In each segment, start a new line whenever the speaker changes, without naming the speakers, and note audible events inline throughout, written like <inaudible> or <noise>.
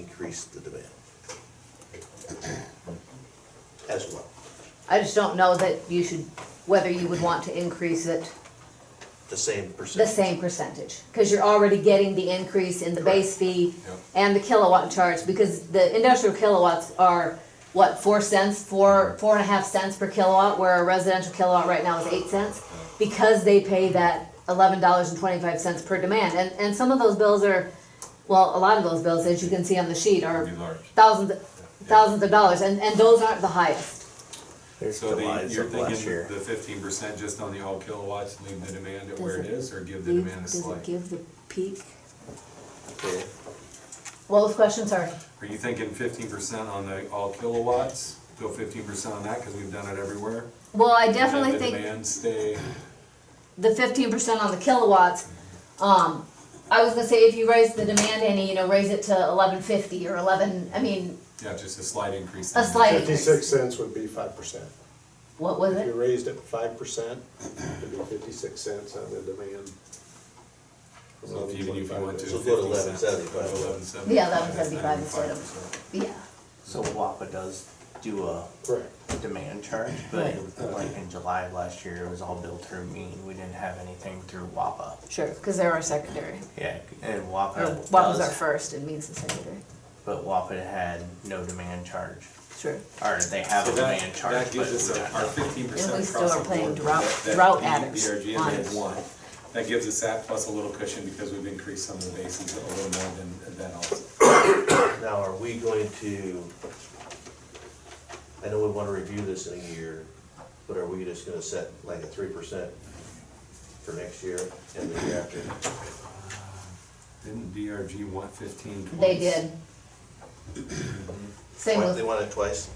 increase the demand as well.
I just don't know that you should, whether you would want to increase it
The same
the
percentage.
same percentage. Cause you're already getting the increase in the base fee
Yep.
and the kilowatt charge, because the industrial kilowatts are, what, four cents, four, four and a half cents per kilowatt, where a residential kilowatt right now is eight cents? Because they pay that eleven dollars and twenty-five cents per demand, and, and some of those bills are, well, a lot of those bills, as you can see on the sheet, are
Pretty large.
thousands, thousands of dollars, and, and those aren't the highest.
There's
So the,
July's
you're
of last
thinking
year.
the fifteen percent just on the all kilowatts, leave the demand at where it
Does it
is, or give the demand a
Does it
slight?
give the peak?
Okay.
What was the question, sorry?
Are you thinking fifteen percent on the all kilowatts, go fifteen percent on that, cause we've done it everywhere?
Well, I
And
definitely
the
think
Demand stay,
the fifteen percent on the kilowatts, um, I was gonna say if you raise the demand any, you know, raise it to eleven fifty or eleven, I mean,
yeah, just a slight increase.
a
in-
slight increase.
Fifty-six cents would be five percent.
What was
If you
it?
raised it five percent, it'd be fifty-six cents on the demand.
So if even if you went to
So go to
fifty cents.
11.75.
Yeah, 11.75 instead of- Yeah,
So WAPA does do a
Correct.
demand charge, but
Right.
like in July of last year, it was all billed through mean. We didn't have anything through WAPA.
sure, cause they're our secondary,
Yeah, and
or
WAPA
what was Oh, our
does,
first, it means the secondary,
but WAPA had no demand charge.
sure.
Or they have a
So that-
demand charge,
That
but
gives us
we
a-
don't
our
know.
fifteen
And we
percent
still
across
are
the
playing
board.
drought-
that- that
drought
the- E
addicts
The RGM
on
had
it.
one. That gives us that plus a little cushion because we've increased some of the bases a little more than, than also.
Now, are we going to, I know we want to review this in a year, but are we just going to set like a three percent for next year and the year after?
Didn't DRG want fifteen twice?
They <coughs> did. Same
Why- They
with, Mm-hmm.
want it twice?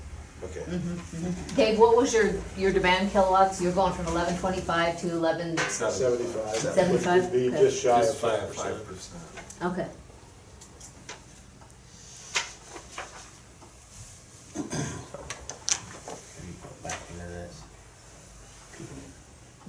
Okay.
Dave, what was your, your demand kilowatts, you're going from eleven twenty-five to eleven,
Seven.
Seventy-five.
Seventy-five?
Which would be
Okay.
just shy of
Just by
five percent.
five percent.
okay.
Can you go Back into this.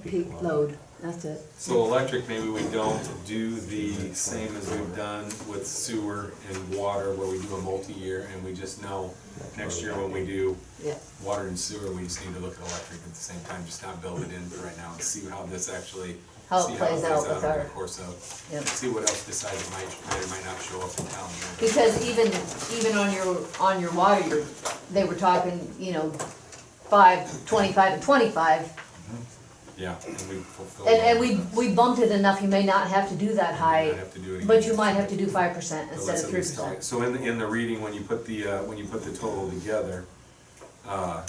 Peak load, that's it.
So electric, maybe we don't do the same as we've done with sewer and water where we do a multi-year and we just know next year when we do
Yeah,
water and sewer, we just need to look at electric at the same time, just not build it in for right now and see how this actually.
How it
see
plays out with
over
our-
the course of,
yeah.
see what else decides it might, that it might not show up in town.
Because even, even on your, on your water, you're, they were talking, you know, five, twenty-five and twenty-five.
Yeah, and we fulfill.
And, and we, we bumped it enough, you may not have to do that
You
high,
might have to do it
but
again.
you might have to do five percent
So
instead
let's
of
at
three
least talk-
percent.
So in, the- in the reading, when you put the, uh, when you put the total together, uh,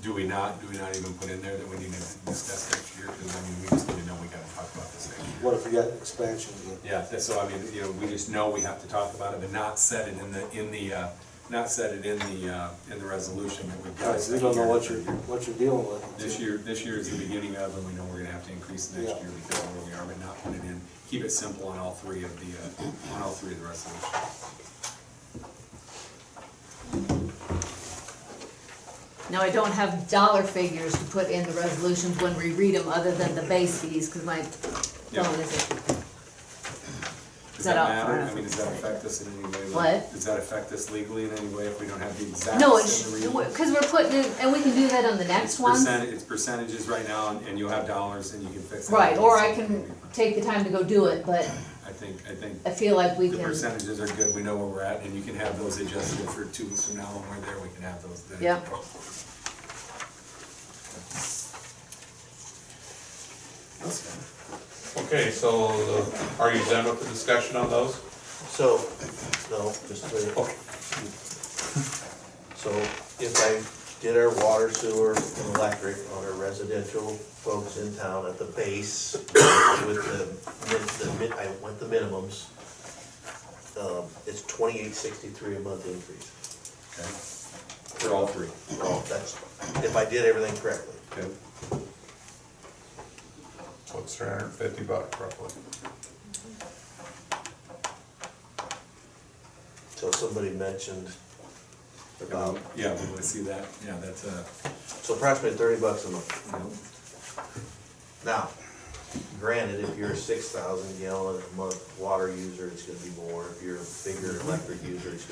do we not, do we not even put in there that we need to discuss next year? Because I mean, we just need to know we gotta talk about this next year.
What if we got expansion again?
Yeah, that's- so I mean, you know, we just know we have to talk about it, but not set it in the, in the, uh, not set it in the, uh, in the resolution that we've got.
Guys, you don't know what you're, what you're dealing with.
This year, this year is the beginning of, and we know we're gonna have to increase next
Yeah.
year because of where we are, but not put it in. Keep it simple on all three of the, uh, on all three of the resolutions.
Now, I don't have dollar figures to put in the resolutions when we read them, other than the base fees, cause my
Yeah.
phone isn't. Is
Does
that
that
out far
matter?
enough?
I mean, does that affect us in any way? Like,
What?
Does that affect us legally in any way if we don't have the exact?
No,
same
it's,
reading?
cause we're putting, it- and we can do that on the
It's
next one.
percent- It's percentages right now, and- and you'll have dollars and you can fix that.
Right, or I can take the time to go do it, but
I think, I think
I feel like we
the
can,
percentages are good, we know where we're at, and you can have those adjusted for two weeks from now when we're there, we can have those then.
Yeah.
That's fine.
Okay, so uh, are you done with the discussion on those?
So, no, just wait. So if I did our water, sewer, and electric on our residential folks in town at the base with the, min- the, min- I went the minimums, um, it's twenty-eight sixty-three a month increase.
Okay. For all three,
Oh, that's, if I did everything correctly.
okay?
So it's three hundred and fifty bucks roughly.
So somebody mentioned
Yeah,
about,
we- Yeah, we wanna see that, yeah, that's, uh,
so approximately thirty bucks a month.
you know,
Now, granted, if you're a six thousand gallon a month water user, it's gonna be more, if you're a bigger electric user, it's